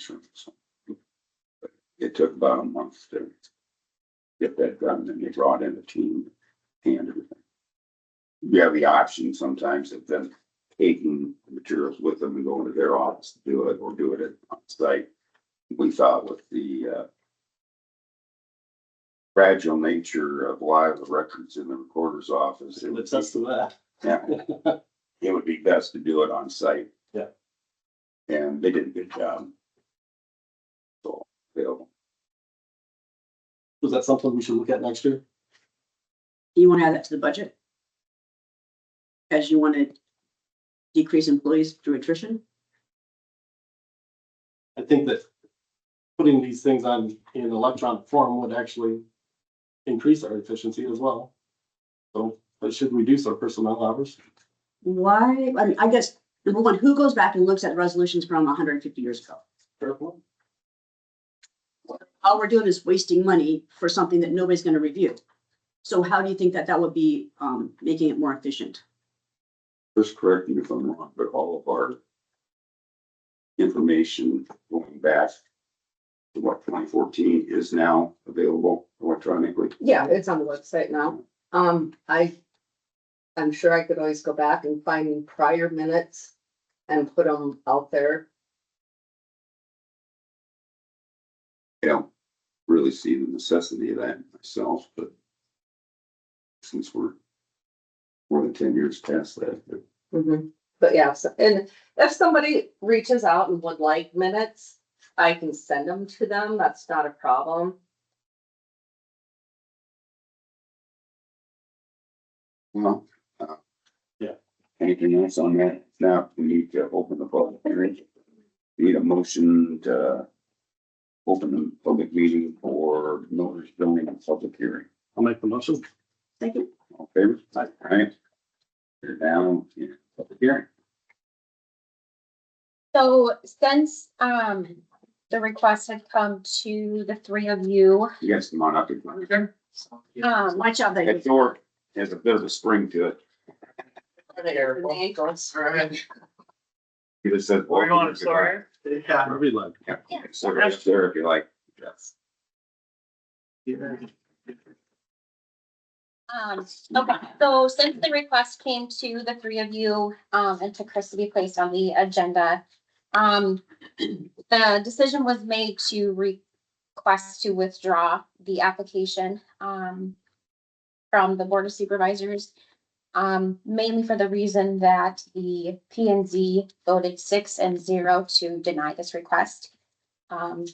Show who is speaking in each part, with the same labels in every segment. Speaker 1: insurance. It took about a month to get that done, and they brought in a team and everything. You have the option sometimes of them taking the materials with them and going to their office to do it, or do it at site. We thought with the uh, fragile nature of live records in the recorder's office, it would
Speaker 2: Let's us to that.
Speaker 1: yeah. It would be best to do it on site.
Speaker 2: Yeah.
Speaker 1: And they did a good job. So, they'll,
Speaker 2: Was that something we should look at next year?
Speaker 3: You want to add that to the budget? As you want to decrease employees through attrition?
Speaker 2: I think that putting these things on in electronic form would actually increase our efficiency as well. So, but should reduce our personnel hours?
Speaker 3: Why, I mean, I guess, number one, who goes back and looks at resolutions from hundred and fifty years ago?
Speaker 2: Fair point.
Speaker 3: All we're doing is wasting money for something that nobody's going to review. So how do you think that that would be, um, making it more efficient?
Speaker 1: just correct me if I'm wrong, but all of our information going back to what, twenty fourteen is now available electronically.
Speaker 4: Yeah, it's on the website now. Um, I, I'm sure I could always go back and find prior minutes and put them out there.
Speaker 1: I don't really see the necessity of that myself, but since we're more than ten years past that, but
Speaker 4: But yeah, so- and if somebody reaches out and would like minutes, I can send them to them. That's not a problem.
Speaker 1: Well. uh,
Speaker 2: Yeah.
Speaker 1: Anything else on that? Now, we need to open the public hearing. Need a motion to open the public meeting for notice zoning and public hearing.
Speaker 2: I'll make the motion.
Speaker 3: Second,
Speaker 1: All in favor? Aye. You're down in public hearing.
Speaker 5: So since um the request had come to the three of you,
Speaker 1: You guys come on up. if you want.
Speaker 5: um
Speaker 3: my job,
Speaker 1: That
Speaker 3: that,
Speaker 1: door has a bit of a spring to it.
Speaker 4: The ankles.
Speaker 1: It just says.
Speaker 6: We're going, sorry. Yeah.
Speaker 2: Every like.
Speaker 1: Yeah, so right up there if you like.
Speaker 5: um okay, so since the request came to the three of you um and to Chris to be placed on the agenda. Um the decision was made to request to withdraw the application um from the Board of Supervisors. Um mainly for the reason that the P and Z voted six and zero to deny this request. Um,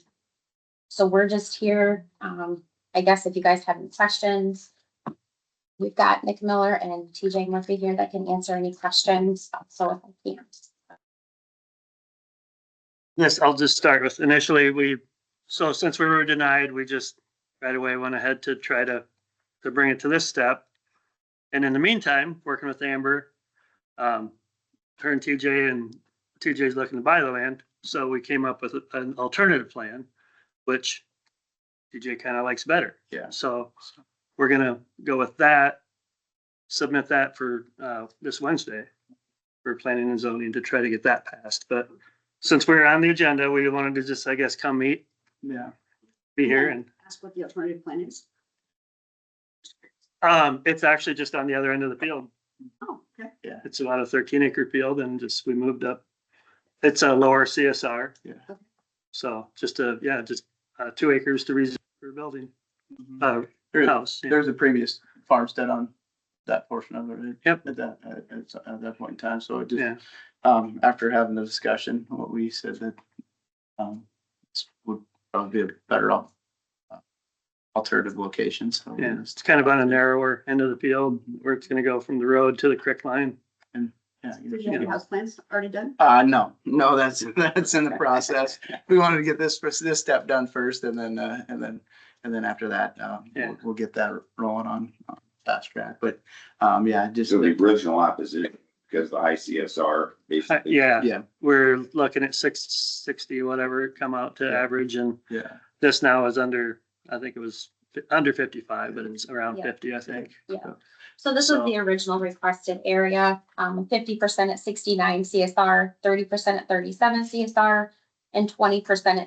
Speaker 5: so we're just here, um, I guess if you guys have any questions. We've got Nick Miller and TJ Murphy here that can answer any questions, so if I can.
Speaker 7: Yes, I'll just start with initially, we, so since we were denied, we just right away went ahead to try to, to bring it to this step. And in the meantime, working with Amber, um, her and TJ and TJ's looking to buy the land. So we came up with an alternative plan, which TJ kind of likes better.
Speaker 1: Yeah.
Speaker 7: So we're gonna go with that, submit that for, uh, this Wednesday. for planning and zoning to try to get that passed, but since we're on the agenda, we wanted to just, I guess, come meet,
Speaker 2: Yeah.
Speaker 7: be here and,
Speaker 3: ask what the alternative plan is.
Speaker 7: um, it's actually just on the other end of the field.
Speaker 3: Oh, okay.
Speaker 7: Yeah. It's about a thirteen acre field and just, we moved up. It's a lower CSR.
Speaker 2: Yeah.
Speaker 7: So just a, yeah, just, uh, two acres to rezone for building,
Speaker 8: Mhm.
Speaker 7: uh,
Speaker 8: There-
Speaker 7: house. yeah.
Speaker 8: There's a previous farmstead on that portion of it.
Speaker 7: Yep.
Speaker 8: At that, at, at- at that point in time, so it
Speaker 7: Yeah,
Speaker 8: just, um, after having the discussion, what we said that, um, this would probably be a better al- uh, alternative location, so.
Speaker 7: yeah, it's kind of on a narrower end of the field where it's gonna go from the road to the creek line.
Speaker 8: Yeah,
Speaker 3: Do you have your
Speaker 8: yeah.
Speaker 3: house plans already done?
Speaker 8: Uh, no, no, that's, that's in the process. We wanted to get this, this step done first and then, uh, and then, and then after that, um,
Speaker 7: Yeah.
Speaker 8: we'll, we'll get that rolling on on fast track, but, um, yeah, just.
Speaker 1: So the original opposition, because the ICSR
Speaker 7: Uh,
Speaker 1: basically.
Speaker 7: Yeah.
Speaker 8: Yeah.
Speaker 7: We're looking at six sixty, whatever, come out to
Speaker 8: Yeah.
Speaker 7: average and
Speaker 8: Yeah.
Speaker 7: this now is under, I think it was fi- under fifty-five, but
Speaker 8: Mm.
Speaker 7: it's around
Speaker 5: Yeah.
Speaker 7: fifty, I think.
Speaker 5: So this was the original requested area, um, fifty percent at sixty-nine CSR, thirty percent at thirty-seven CSR, and twenty percent